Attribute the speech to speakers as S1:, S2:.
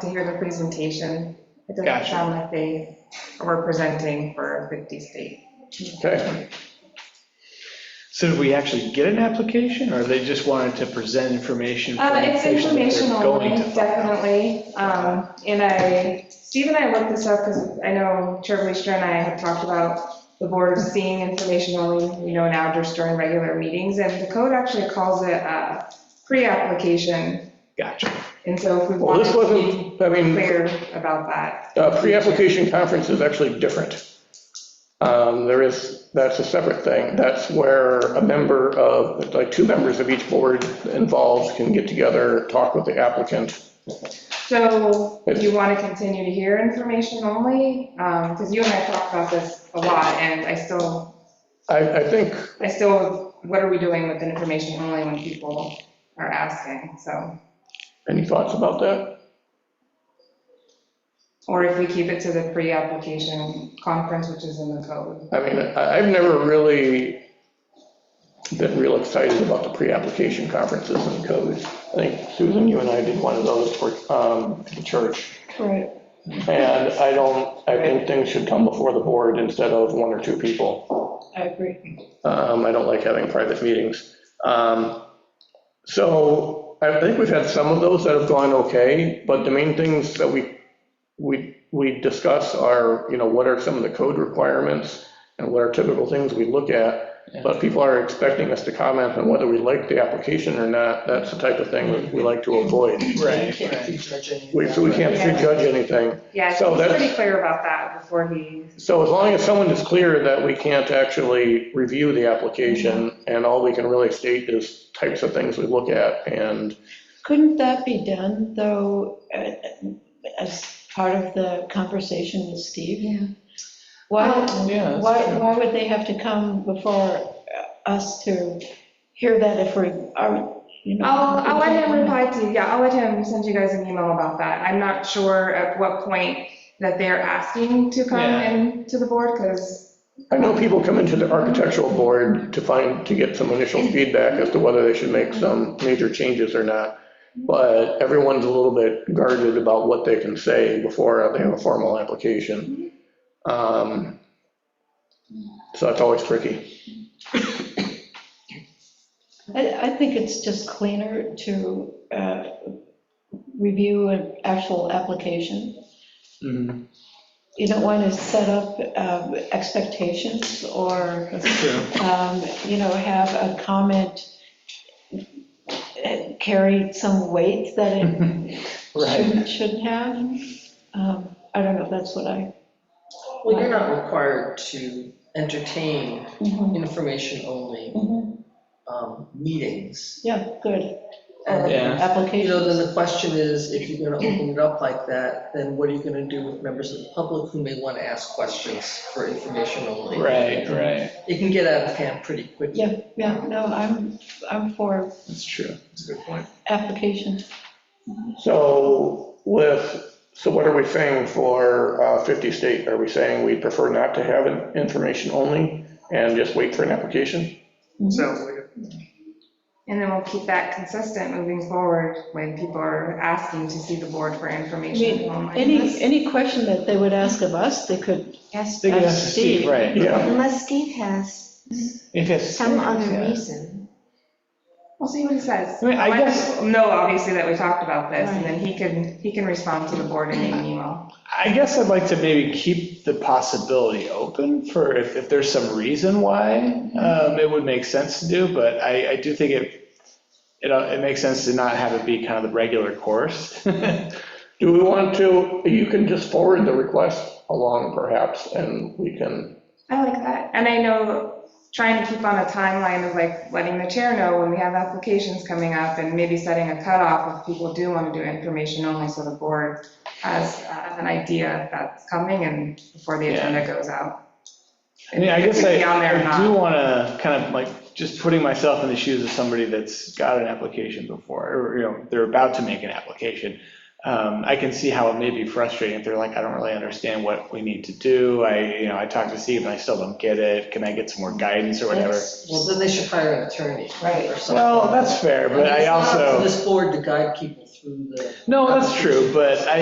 S1: to hear the presentation. It doesn't
S2: Gotcha.
S1: sound like they were presenting for a 50 state.
S2: Okay. So did we actually get an application, or they just wanted to present information? for
S1: Um, It's
S2: information that they're
S1: informational,
S2: going to find out?
S1: definitely. Um, And I, Steve and I looked this up because I know Chair Leistra and I had talked about the board seeing information only, you know, now just during regular meetings. And the code actually calls it uh, pre-application.
S2: Gotcha.
S1: And so if we
S3: Well,
S1: wanted
S3: this
S1: to be
S3: wasn't, I mean,
S1: clear about that.
S3: uh, pre-application conference is actually different. Um, There is, that's a separate thing. That's where a member of, like, two members of each board involved can get together, talk with the applicant.
S1: So do you want to continue to hear information only? Because you and I talked about this a lot, and I still
S3: I, I think,
S1: I still, what are we doing with information only when people are asking, so,
S3: any thoughts about that?
S1: or if we keep it to the pre-application conference, which is in the code.
S3: I mean, I- I've never really been real excited about the pre-application conferences and codes. I think Susan, you and I did one of those for um, the church.
S1: Right.
S3: And I don't, I think things should come before the board instead of one or two people.
S4: I agree.
S3: Um, I don't like having private meetings. Um, So I think we've had some of those that have gone okay, but the main things that we, we, we discuss are, you know, what are some of the code requirements and what are typical things we look at? But people are expecting us to comment on whether we like the application or not. That's the type of thing that we like to avoid.
S2: Right,
S5: Can't
S2: right.
S5: prejudge any of
S3: We-
S5: that,
S3: So we
S5: right?
S3: can't prejudge anything.
S1: Yeah, I
S3: So
S1: think he's
S3: that's-
S1: pretty clear about that before he,
S3: So as long as someone is clear that we can't actually review the application, and all we can really state is types of things we look at, and
S4: Couldn't that be done, though, uh, as part of the conversation with Steve? Yeah. Why,
S2: Yeah, that's
S4: why,
S2: true.
S4: why would they have to come before us to hear that if we are, you know?
S1: I'll, I'll let him reply to you, yeah, I'll let him send you guys an email about that. I'm not sure at what point that they're asking to come
S2: Yeah.
S1: in to the board, because,
S3: I know people come into the architectural board to find, to get some initial feedback as to whether they should make some major changes or not, but everyone's a little bit guarded about what they can say before they have a formal application. Um, So that's always tricky.
S4: I, I think it's just cleaner to uh, review an actual application.
S2: Mhm,
S4: You don't want to set up um, expectations or
S2: That's true.
S4: um, you know, have a comment carry some weight that it
S2: Mm-hmm. Right.
S4: shouldn't, shouldn't have. Um, I don't know, that's what I,
S5: Well, you're not required to entertain information only
S4: Mhm.
S5: um, meetings.
S4: yeah, good,
S5: And,
S2: Oh, Yeah.
S5: you know,
S4: application.
S5: then the question is, if you're gonna open it up like that, then what are you gonna do with members of the public who may wanna ask questions for information only?
S2: Right, right.
S5: It can get out of hand pretty quickly.
S4: Yeah, yeah, no, I'm, I'm for
S2: That's true. That's a good point.
S4: application.
S3: So with, so what are we saying for uh, 50 state? Are we saying we prefer not to have an information only and just wait for an application?
S5: Sounds like it.
S1: and then we'll keep that consistent moving forward when people are asking to see the board for information.
S4: mean,
S1: only.
S4: Any, any question that they would ask of us, they could
S6: Yes,
S2: They could
S4: That's
S2: ask Steve,
S4: Steve.
S2: right.
S3: Yeah,
S6: unless Steve has
S2: If it's.
S6: some
S2: yeah.
S6: other reason.
S1: We'll see what he says.
S2: I mean, I
S1: Let
S2: guess-
S1: him know, obviously, that we talked about this, and then he can, he can respond to the board in an email.
S2: I guess I'd like to maybe keep the possibility open for if, if there's some reason why um, it would make sense to do, but I, I do think it, it, uh, it makes sense to not have it be kind of the regular course.
S3: do we want to, you can just forward the request along perhaps, and we can,
S1: I like that. And I know, trying to keep on a timeline of like letting the chair know when we have applications coming up and maybe setting a cutoff if people do want to do information only, so the board has uh, an idea that's coming and before the
S2: Yeah.
S1: agenda goes out.
S2: I mean, I guess
S1: If
S2: I,
S1: it could be on there or
S2: I do
S1: not.
S2: want to kind of like, just putting myself in the shoes of somebody that's got an application before, or, you know, they're about to make an application. Um, I can see how it may be frustrating if they're like, I don't really understand what we need to do. I, you know, I talked to Steve and I still don't get it. Can I get some more guidance or whatever?
S5: Well, then they should hire an attorney or something.
S2: Well, that's fair, but I
S5: It's not up to
S2: also,
S5: This board to guide people through the.
S2: no, that's true, but I,